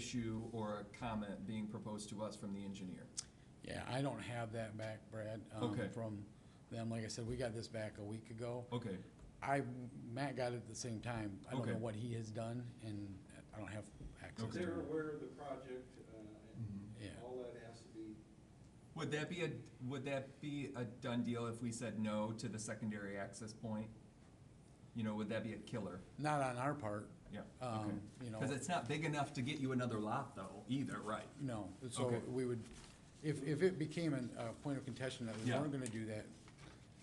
issue or a comment being proposed to us from the engineer. Yeah, I don't have that back, Brad, um, Okay. from them. Like I said, we got this back a week ago. Okay, I, Matt got it at the same time. I don't know Okay. what he has done, and I don't have access to it. They're aware of the project, Mm-hmm. uh, and Yeah. all that has to be, would that be a, would that be a done deal if we said no to the secondary access point? You know, would that be a killer? Not on our part, Yeah, okay. um, you know, Because it's not big enough to get you another lot though, either, right? no. So Okay. we would, if, if it became an- a point of contention that we Yeah. weren't gonna do that,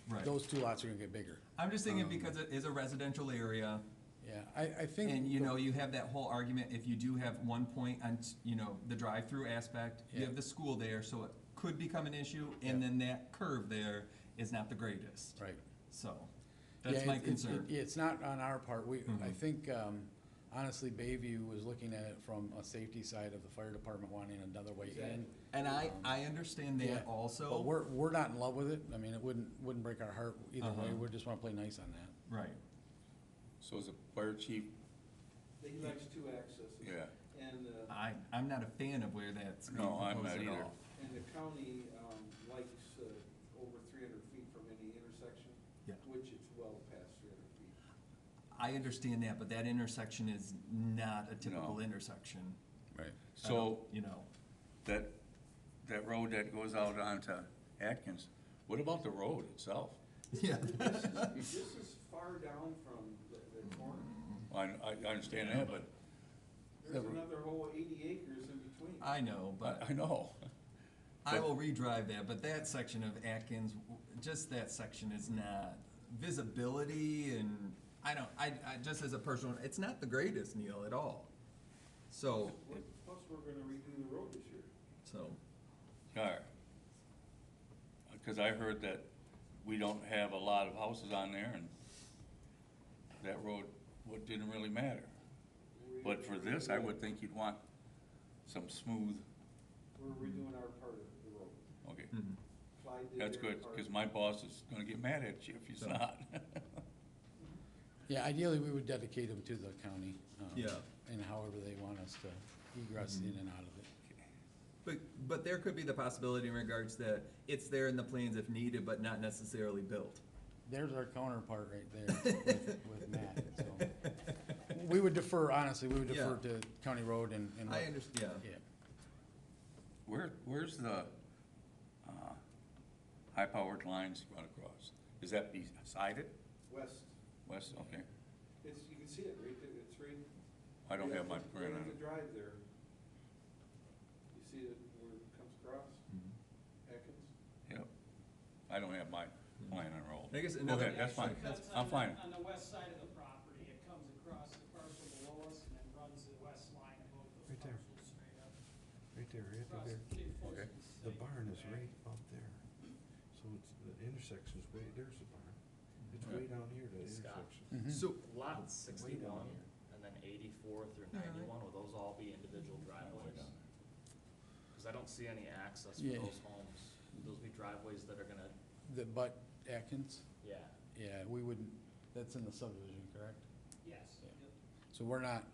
Right. Um, those two lots are gonna get bigger. I'm just thinking because it is a residential area, Yeah, I, I think. and you the- know, you have that whole argument, if you do have one point on, t- you know, the drive-through aspect, you Yeah. have the school there, so it could become an issue, and Yeah. then that curve there is not the greatest. Right. So, Yeah, that's my it- it's- it- concern. It's not on our part. We, I Mhm. think, um, honestly, Bayview was looking at it from a safety side of the fire department wanting another way in. Exactly. And I, I understand Yeah, that also. But we're, we're not in love with it. I mean, it wouldn't, wouldn't break our heart either way. Uh-huh. We just wanna play nice on that. Right, So is the fire chief, he likes two accesses. yeah, And, uh, I, I'm not a fan of where that's being No, I'm proposed not at either. all. and the county um, likes uh, over three hundred feet from any intersection, Yeah. which it's well past three hundred feet. I understand that, but that intersection is not a typical No. intersection. Right. I don't- so You know, that, that road that goes out onto Atkins, what about the road itself? yeah, This is- This is far down from the the Mm-hmm. corner. I, I I understand that, but, There's Yeah. Ah. another whole eighty acres in between. I know, but I, I know, I will redrive that, but that section of Atkins, w- just that section is not visibility and I don't, I, I, just as a personal, it's not the greatest, Neil, at all. So, We're- Plus, we're gonna redo the road this year. so, yeah. Cause I heard that we don't have a lot of houses on there and that road, what didn't really matter. We're But for this, I would redoing- think you'd want some smooth, We're redoing our part of the road. okay, mhm. Clyde did that's their good, part. cause my boss is gonna get mad at you if he's not. Yeah, ideally, we would dedicate them to the county. um, Yeah. And however they want us to egress Mm-hmm. in and out of it. but, but there could be the possibility in regards that it's there in the plans if needed, but not necessarily built. There's our counterpart right there with with Matt, so. We would defer, honestly, we would defer Yeah. to County Road and. and I what- understand, yeah. Yeah, Where, where's the, uh, high-powered lines run across? Is that beside it, West, west, okay? it's, you can see it right there, it's right. I don't right have at my the- print right on at it. the drive there. You see it where it comes across, Mm-hmm. Atkins? Yep, I don't have my plan on roll. I guess Go another- ahead, that's fine, That's I'm on the- fine. On the west side of the property, it comes across the parcel below us and then runs the west line of both those Right there. parcels straight up. Right there, right Across there. big Okay. portions of The state barn is back. right up there. So it's, the intersection's way, there's the barn. It's way down here, the Scott. intersection. So, Lot sixty-one here. and then eighty-four through Yeah, right. ninety-one, will those all be individual driveways? Cause I don't see any access for Yeah. those homes. Would Those be driveways that are gonna, the Bud Mm-hmm. Atkins, yeah, yeah, we wouldn't, that's in the subdivision, correct? Yes. Yeah. yep. So we're not,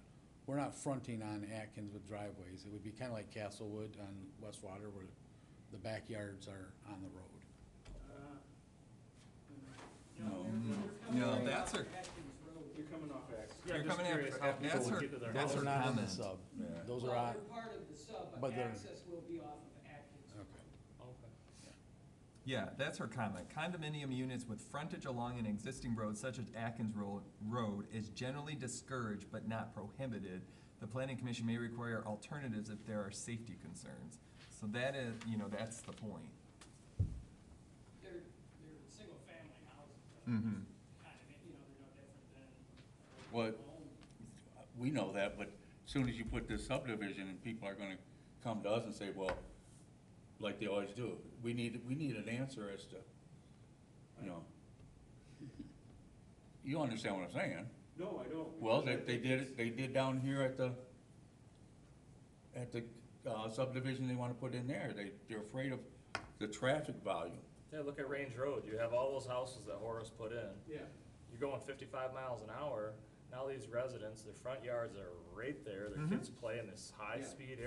we're not fronting on Atkins with driveways. It would be kind of like Castlewood on West Water where the backyards are on the road. Uh, No. they're- they're coming No, right that's off her- Atkins Road. You're coming off Atkins. Yeah, You're I'm just coming curious after- how people that's would her- get to their that's Those her are homes. not in the comment. sub. Yeah. Those Well, are on, they're part of the sub, but but they're- access will be off of Atkins. Road. okay. Okay. Yeah, that's her comment. Condominium units with frontage along an existing road such as Atkins Ro- Road is generally discouraged but not prohibited. The planning commission may require alternatives if there are safety concerns. So that is, you know, that's the point. They're, they're single-family houses. but Mhm. Kind of, you know, they're no different than. a Mm-hmm. What- home. We know that, but as soon as you put this subdivision, and people are gonna come to us and say, well, like they always do, we need, we need an answer as to, you know. You understand what I'm saying? No, I don't. Well, they, because I they think did, it's- it. they did down here at the, at the uh, subdivision they wanna put in there, they, they're afraid of the traffic volume. Yeah, look at Range Road. You have all those houses that Horace put in. Yeah. You're going fifty-five miles an hour. Now these residents, their front yards are right there, their kids play in this high-speed